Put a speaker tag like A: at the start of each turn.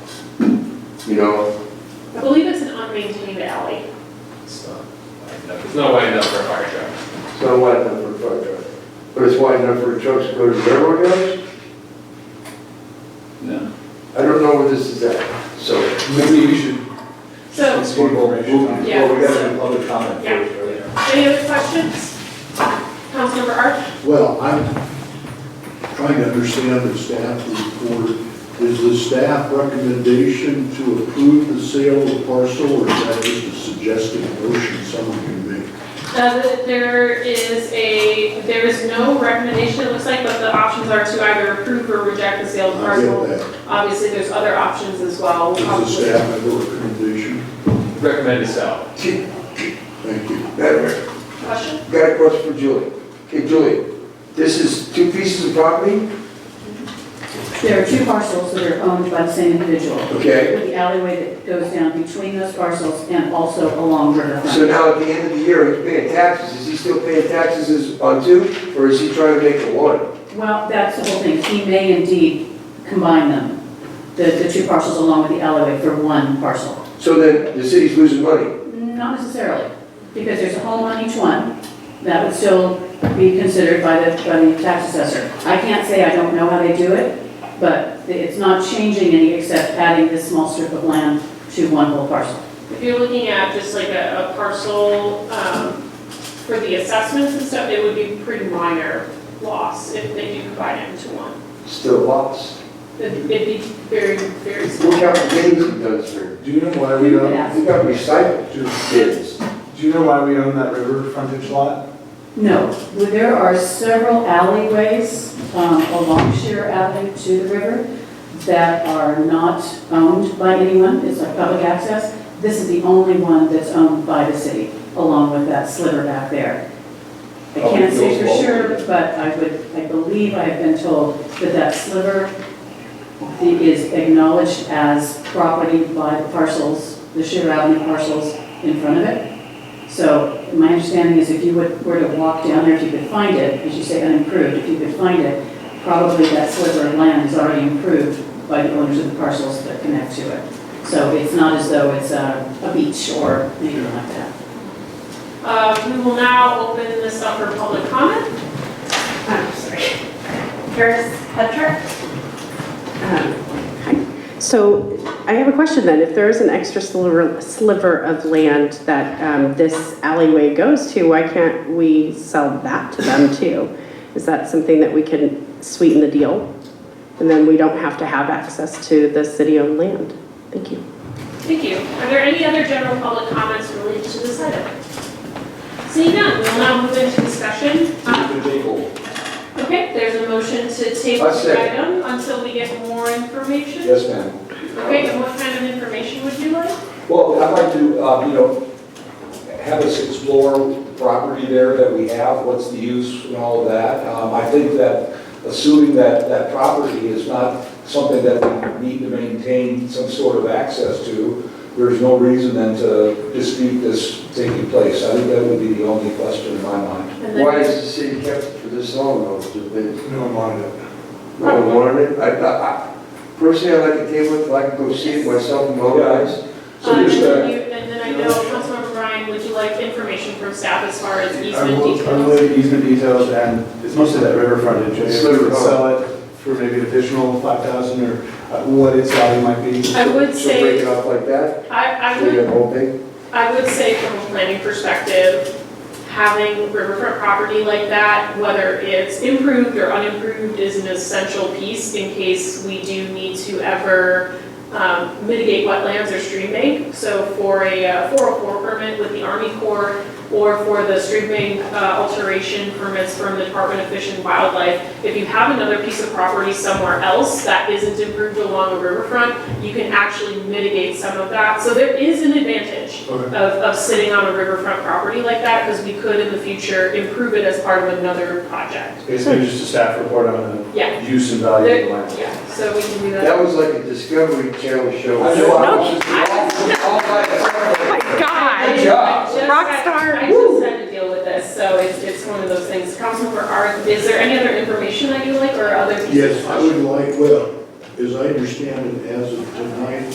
A: you know?
B: I believe it's an unmaintained alley.
C: It's not wide enough, it's not wide enough for a fire truck.
A: It's not wide enough for a fire truck, but it's wide enough for trucks to go to railroad yards?
C: No.
A: I don't know where this is at, so.
C: Maybe we should.
B: So,
C: It's one more issue.
B: Well, we gotta do
D: public comment
B: Yeah. any other questions? Councilmember Arch?
D: Well, I'm trying to understand the staff report. Is the staff recommendation to approve the sale of the parcel, or is that just a suggested motion someone can make?
B: Uh, there is a, there is no recommendation, it looks like, but the options are to either approve or reject the sale of
D: I get
B: parcel.
D: that.
B: Obviously, there's other options as well.
D: Does the
B: Probably-
D: staff have a recommendation?
C: Recommend to sell.
D: Thank you.
A: That,
B: Question?
A: got a question for Julie. Okay, Julie, this is two pieces of property?
E: There are two parcels that are owned by the same individual.
A: Okay.
E: The alleyway that goes down between those parcels and also along
A: So
E: Riverfront.
A: now at the end of the year, he's paying taxes, is he still paying taxes as- on two, or is he trying to make it one?
E: Well, that's the whole thing. He may indeed combine them, the, the two parcels along with the alleyway for one parcel.
A: So then the city's losing money.
E: Not necessarily, because there's a home on each one. That would still be considered by the, by the tax assessor. I can't say I don't know how they do it, but it's not changing any except adding this small strip of land to one whole parcel.
B: If you're looking at just like a, a parcel, um, for the assessments and stuff, it would be pretty minor loss if they do combine it into one.
A: Still lost.
B: It'd it'd be very, very
A: Look
B: small.
A: how many games he does here.
F: Do you know why we own,
E: Yeah.
A: He uh, got recycled two kids.
F: do you know why we own that river frontage lot?
E: No, well, there are several alleyways um, along Sheer Avenue to the river that are not owned by anyone, it's like public access. This is the only one that's owned by the city, along with that sliver back there. I can't say for sure, but I would, I believe I have been told that that sliver is acknowledged as property by the parcels, the Sheer Avenue parcels in front of it. So my understanding is if you would- were to walk down there, if you could find it, as you say unimproved, if you could find it, probably that sliver of land is already improved by the owners of the parcels that connect to it. So it's not as though it's a a beach or anything like that.
B: Uh, we will now open this up for public comment. I'm sorry.
G: Paris Petrarch. So I have a question then. If there is an extra sliver sliver of land that um, this alleyway goes to, why can't we sell that to them too? Is that something that we can sweeten the deal? And then we don't have to have access to the city-owned land? Thank you.
B: Thank you. Are there any other general public comments related to this item? Seeing none, we'll now move into discussion. Uh, Okay, there's a motion to table
A: I
B: the
A: second.
B: item until we get more information.
H: Yes, ma'am.
B: Okay, and what kind of information would you like?
H: Well, I'd like to, uh, you know, have us explore property there that we have, what's the use and all of that. Um, I think that assuming that that property is not something that we need to maintain some sort of access to, there's no reason then to dispute this taking place. I think that would be the only question in my mind.
B: And then-
A: Why is the city kept it for this long though? It's just been-
F: No one wanted it.
A: No one wanted it. I, I, I- personally, I like to table it, I can go see it myself and my own eyes.
H: So
B: Um,
H: just,
B: and
H: uh,
B: you- And then I know, Councilmember Ryan, would you like information from staff as far as
F: I
B: easement
F: will, I will
B: details?
F: have easement details and it's mostly that river frontage. Maybe
A: It's
F: we
A: river
F: could Sell it for maybe an additional five thousand or uh, what its value might be.
B: I would
A: So break it
B: say,
A: off like that,
B: I, I
A: so you
B: would
A: have the whole thing.
B: I would say from a planning perspective, having riverfront property like that, whether it's improved or unimproved, is an essential piece in case we do need to ever um, mitigate wetlands or stream bank. So for a uh, 404 permit with the Army Corps or for the stream bank uh, alteration permits from the Department of Fish and Wildlife, if you have another piece of property somewhere else that isn't improved along the riverfront, you can actually mitigate some of that. So there is an advantage
F: Okay.
B: of, of sitting on a riverfront property like that, because we could in the future improve it as part of another project.
F: Basically just a staff report on
B: Yeah,
F: the use and value of the land.
B: yeah, so we can do that.
A: That was like a Discovery Channel show.
H: I know I
G: No. Oh
H: watched this all- all by myself.
G: My
B: I
G: God.
B: just- I just-
G: Rockstar.
B: I just had to deal with this, so it's, it's one of those things. Councilmember Art, is there any other information that you like, or other pieces? of
D: Yes, I would like, well, as I understand it, as of tonight,